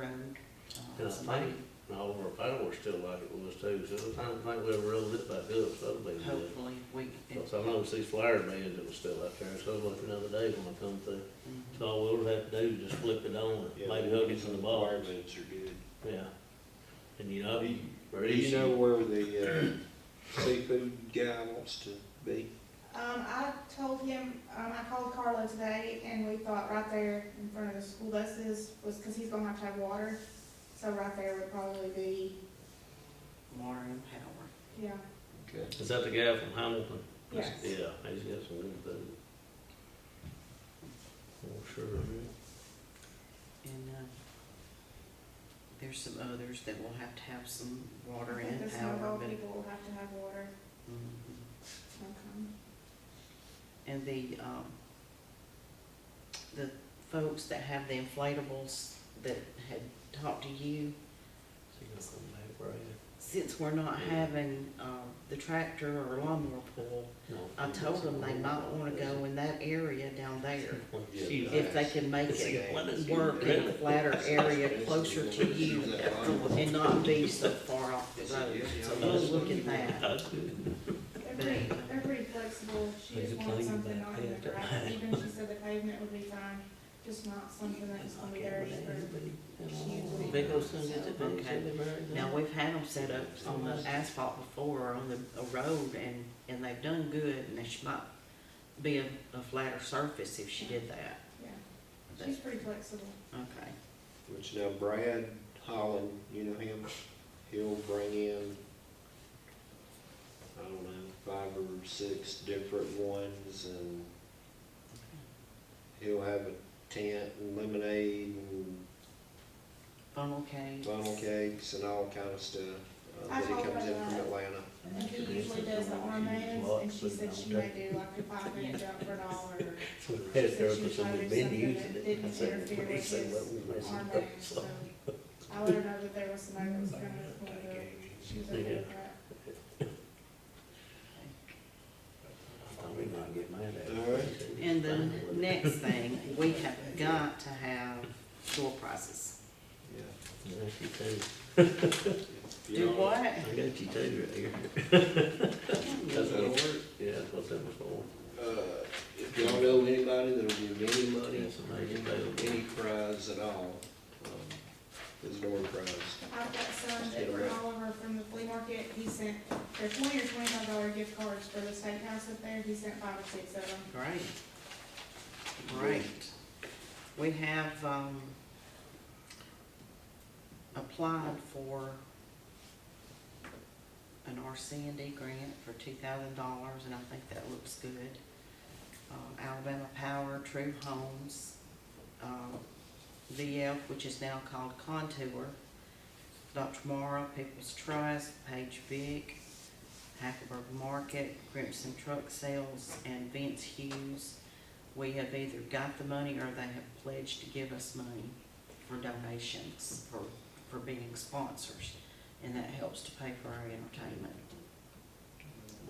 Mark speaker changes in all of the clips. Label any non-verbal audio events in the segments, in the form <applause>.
Speaker 1: uh,
Speaker 2: And I think, all of our fireworks still like it was too, so I don't think we ever rolled it back up, so that'll be good.
Speaker 1: Hopefully, we,
Speaker 2: Because I noticed these flyer bands that was still out there, so I was looking the other day when I come through. So all we'll have to do is just flip it on, and maybe hook it to the bars,
Speaker 3: Requirements are good.
Speaker 2: yeah. And you know,
Speaker 3: Do you-
Speaker 2: or
Speaker 3: Do you
Speaker 2: issue.
Speaker 3: know where the
Speaker 2: <clears throat>
Speaker 3: uh, seafood guy wants to be?
Speaker 4: Um, I told him, um, I called Carlo today and we thought right there in front of the school buses was, cause he's gonna have to have water. So right there would probably be,
Speaker 1: Warren Howard.
Speaker 4: yeah,
Speaker 3: Okay.
Speaker 2: Is that the guy from Hamilton?
Speaker 4: yes.
Speaker 2: Yeah, he's got some good food. Oh, sure.
Speaker 1: And, uh, there's some others that will have to have some
Speaker 4: I
Speaker 1: water
Speaker 4: think
Speaker 1: in
Speaker 4: the snowball
Speaker 1: Howard, but.
Speaker 4: people will have to have water.
Speaker 1: Mhm.
Speaker 4: Okay.
Speaker 1: And the, um, the folks that have the inflatables that had talked to you,
Speaker 2: Is he gonna come back, Brad?
Speaker 1: since we're not having, um, the tractor or lawnmower pool,
Speaker 2: No.
Speaker 1: I told them they might wanna go in that area down there.
Speaker 2: Shoot.
Speaker 1: If they can make
Speaker 2: It's
Speaker 1: it
Speaker 2: like, what is
Speaker 1: work
Speaker 2: it?
Speaker 1: in a flatter area closer to you and not be so far off the road. So we'll look at that.
Speaker 2: <laughs> That's good.
Speaker 4: They're pretty, they're pretty flexible. She
Speaker 2: Things
Speaker 4: just
Speaker 2: are
Speaker 4: wanted
Speaker 2: clean,
Speaker 4: something
Speaker 2: but
Speaker 4: not
Speaker 2: they
Speaker 4: in
Speaker 2: have
Speaker 4: the
Speaker 2: to-
Speaker 4: grass. Even she said the pavement would be fine, just not something that's gonna be dirty for kids.
Speaker 2: Big old son gets a big
Speaker 1: Okay.
Speaker 2: chili bird.
Speaker 1: Now, we've had them set up on the asphalt before, on the, a road, and, and they've done good, and it might be a, a flatter surface if she did that.
Speaker 4: Yeah, she's
Speaker 1: That's-
Speaker 4: pretty flexible.
Speaker 1: Okay,
Speaker 3: Which now Brad Holland, you know him, he'll bring in, I don't know, five or six different ones and he'll have a tent and lemonade and
Speaker 1: funnel cake.
Speaker 3: funnel cakes and all kind of stuff.
Speaker 4: I
Speaker 3: Uh, he
Speaker 4: told
Speaker 3: comes in
Speaker 4: Brad.
Speaker 3: from Atlanta.
Speaker 4: And he usually does the armbands, and she said she may do like a five minute jump for a dollar,
Speaker 2: So the head therapist on the menu using it. I said,
Speaker 4: Didn't interfere
Speaker 2: "Please say
Speaker 4: with
Speaker 2: what
Speaker 4: his
Speaker 2: we
Speaker 4: or
Speaker 2: messing up."
Speaker 4: armband, so.
Speaker 2: So,
Speaker 4: I let her know that there was somebody that was coming for the, she was okay with that.
Speaker 2: I thought we might get mad at
Speaker 3: All right.
Speaker 2: it.
Speaker 1: And the next thing, we have got to have door prizes.
Speaker 3: Yeah.
Speaker 2: I got you too.
Speaker 3: If
Speaker 1: Do
Speaker 3: y'all-
Speaker 1: what?
Speaker 2: I got you too right here.
Speaker 1: Good
Speaker 2: what-
Speaker 1: Lord.
Speaker 2: <laughs> Yeah, that's what that was for.
Speaker 3: Uh, If y'all know anybody that'll give any money,
Speaker 2: Yes,
Speaker 3: or
Speaker 2: I
Speaker 3: give
Speaker 2: do.
Speaker 3: any prize at all, um, is door prize.
Speaker 4: I've got some that were Oliver from the flea market, he sent, they're twenty or twenty-five dollar gift cards for the steakhouse up there, he sent five or six of them.
Speaker 1: Great. Great. We have, um, applied for an RCND grant for two thousand dollars, and I think that looks good. Um, Alabama Power, True Homes, um, VF, which is now called Contour, Dr. Mara, People's Trust, Page Vic, Hackleburg Market, Crimson Truck Sales, and Vince Hughes. We have either got the money or they have pledged to give us money for donations, for, for being sponsors. And that helps to pay for our entertainment.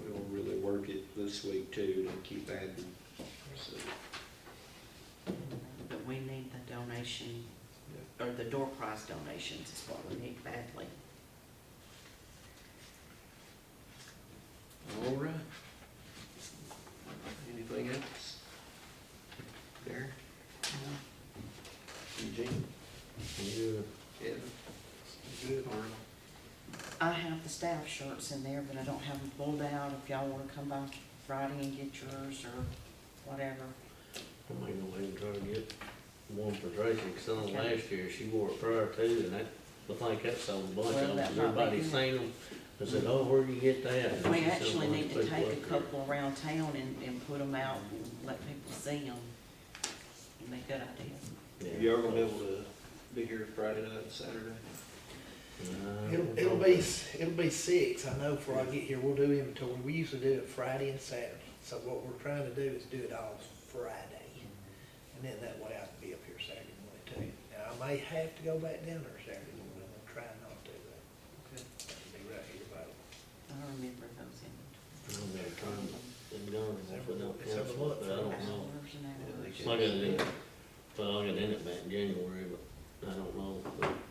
Speaker 3: We'll really work it this week too, to keep adding, so.
Speaker 1: But we need the donation, or the door prize donations is what we need badly.
Speaker 3: All right. Anything else? There, Eugene,
Speaker 2: Yeah.
Speaker 3: Kevin? Good. Arnold?
Speaker 1: I have the staff shirts in there, but I don't have them pulled out. If y'all wanna come by Friday and get yours or whatever.
Speaker 2: I'm gonna go ahead and try to get one for Tracy, cause I know last year she wore it prior to, and that, I think that sold a bunch
Speaker 1: Well,
Speaker 2: of them,
Speaker 1: that
Speaker 2: 'cause
Speaker 1: might be
Speaker 2: everybody
Speaker 1: good.
Speaker 2: seen them. I said, oh, where do you get that? And
Speaker 1: We
Speaker 2: she sold a
Speaker 1: actually
Speaker 2: bunch
Speaker 1: need
Speaker 2: of
Speaker 1: to
Speaker 2: people
Speaker 1: take a
Speaker 2: up there.
Speaker 1: couple around town and, and put them out and let people see them. It'd be a good idea.
Speaker 2: Yeah.
Speaker 3: Y'all gonna be able to be here Friday night, Saturday?
Speaker 2: Uh, No,
Speaker 5: It'll, it'll be, it'll be six, I know, before I get here, we'll do inventory, we used to do it Friday and Saturday, so what we're trying to do is do it all Friday. And then that way I can be up here Saturday morning too. Now, I may have to go back down there Saturday morning, I'm trying not to,
Speaker 3: Okay.
Speaker 5: but I'll be right here by
Speaker 1: I remember those in.
Speaker 2: I'm gonna try and, and go, and if we don't
Speaker 5: It's
Speaker 2: cancel
Speaker 5: over
Speaker 2: it,
Speaker 5: what?
Speaker 2: but I don't know.
Speaker 1: hours and
Speaker 3: Yeah, they
Speaker 1: hours.
Speaker 2: It's not gonna be, well, I'm gonna end it back in January, but I don't know, but